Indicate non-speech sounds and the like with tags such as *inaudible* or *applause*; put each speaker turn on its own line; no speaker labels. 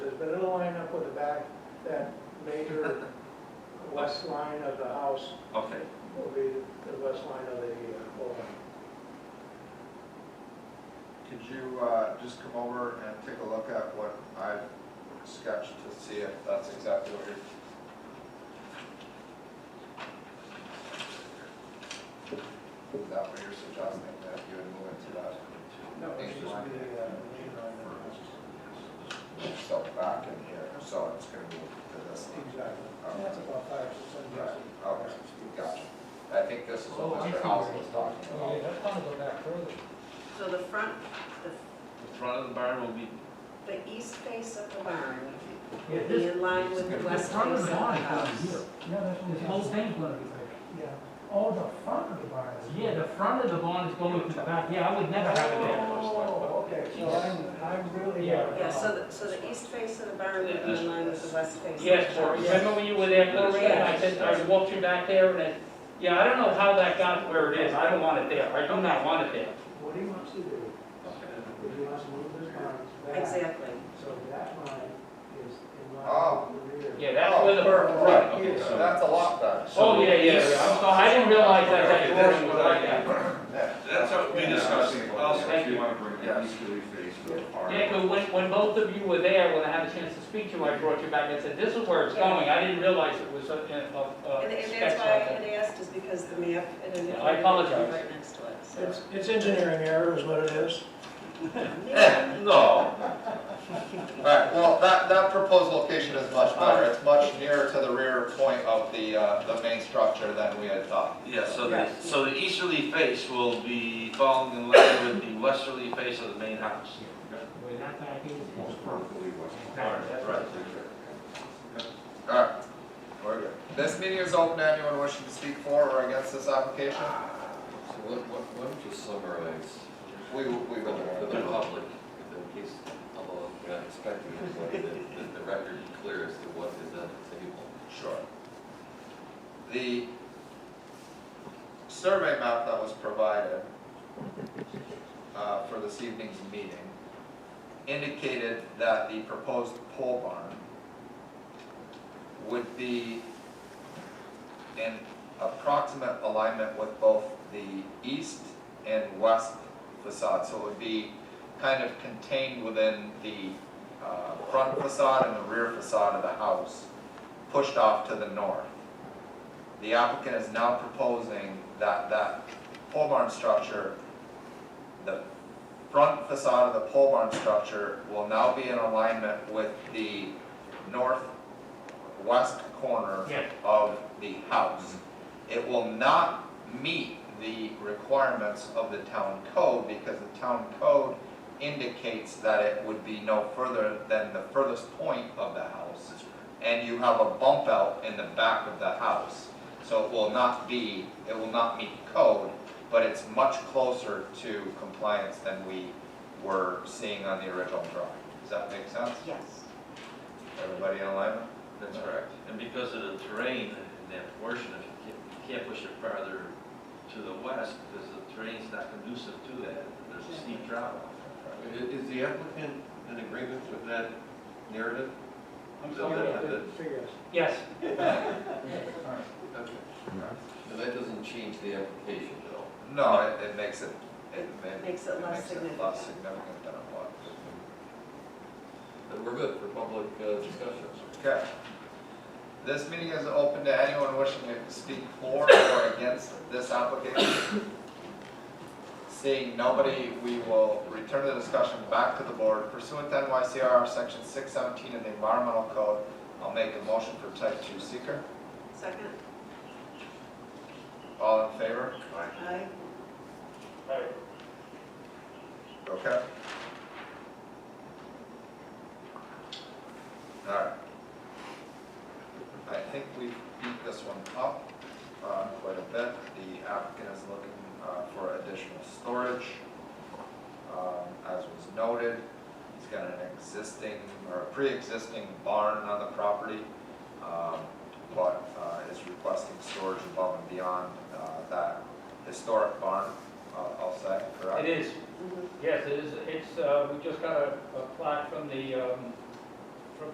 back, that
*laughs*
major west line of the house
Okay,
will be the west line of the uh, building.
Could you uh, just come over and take a look at what I've sketched to see if that's exactly what you're... Is that what you're suggesting, that you would move into that,
No, it's just the uh, main line of the house.
so back in here, so it's gonna move to this?
Exactly. That's about five or six hundred yards.
Right, okay, gotcha. I think this is
Oh,
what
I
Mr.
see.
House was
Oh,
talking
yeah,
about.
that's gonna go back further.
So the front,
the front of the barn will be,
the east face of the barn
Yeah,
will be
this,
in line with the
this
west face
front
of
of
the
the barn is gonna be
house.
here.
Yeah, that's
This whole thing's gonna be bigger.
yeah.
Oh,
All the front of the barn is.
Yeah, the front of the barn is going to the back, yeah, I would never have it there.
Oh, okay, so I'm, I'm really.
Yeah.
Yeah, so the, so the east face of the barn will be in line with the west face. of the
Yes, Cory,
house.
remember when you were there, Cory, and I said, I walked you back there, and then, yeah, I don't know how that got where it is, I don't want it there, I do not want it there.
What he wants to do, is he wants to move this barn back,
Exactly.
so that line is in
Oh.
line with the rear.
Yeah, that's where the.
Oh, Right,
okay,
yeah,
so-
that's a lot better.
Oh, yeah, yeah, yeah, I'm sorry, I didn't realize that
Oh,
that
Okay,
drawing was like that.
Yeah.
that's what we
Yeah, I was
discussed.
thinking about
Also,
that.
if you want to bring
Yeah.
that easterly face to the barn.
Yeah, 'cause when, when both of you were there, when I had a chance to speak to you, I brought you back and said, this is where it's going, I didn't realize it was, uh, uh, uh,
And, and
specs
that's why I
like that.
had asked, is because the map, it indicated
I apologize.
right next to it, so.
It's, it's engineering error is what it is.
Eh, No. All right, well, that, that proposed location is much better. It's much nearer to the rear point of the, uh, the main structure than we had thought.
Yeah, so the,
Yes.
so the easterly face will be falling in line with the westerly face of the main house.
Where that back is, it's
Right, right.
All right, we're good. This meeting is open to anyone wishing to speak for or against this application.
So what, what, why don't you summarize
We, will- we will.
for the public, in case, although we're not expecting anybody, that, that the record be clear as to what is on the table?
Sure. The survey map that was provided uh, for this evening's meeting indicated that the proposed pole barn would be in approximate alignment with both the east and west facade. So it would be kind of contained within the uh, front facade and the rear facade of the house pushed off to the north. The applicant is now proposing that that pole barn structure, the front facade of the pole barn structure will now be in alignment with the northwest corner
Yeah.
of the house. It will not meet the requirements of the town code because the town code indicates that it would be no further than the furthest point of the house and you have a bump out in the back of the house. So it will not be, it will not meet code, but it's much closer to compliance than we were seeing on the original drawing. Does that make sense?
Yes.
Everybody in alignment?
That's correct. And because of the terrain in that portion, if you can't, you can't push it farther to the west, because the terrain's not conducive to that. There's a steep drop off.
Is, the applicant in agreement with that narrative?
I'm
So that-
sorry.
that-
Figures.
Yes,
okay. And that doesn't change the application at all?
No, it, it makes it, it it
Makes it
Makes
less
it less significant than it was.
Then we're good for public uh, discussions.
Okay. This meeting is open to anyone wishing to speak for or against this application. Seeing nobody, we will return the discussion back to the board pursuant to NYCR section six seventeen of the environmental code. I'll make a motion for type two seeker.
Second,
All in favor?
aye.
Okay. All right. I think we've beat this one up uh, quite a bit. The applicant is looking uh, for additional storage. Um, As was noted, he's got an existing or a pre-existing barn on the property, um, but uh, is requesting storage above and beyond uh, that historic barn, uh, I'll say, correct?
it is.
Mhm.
Yes, it is, it's, uh, we just got a, a plot from the, um,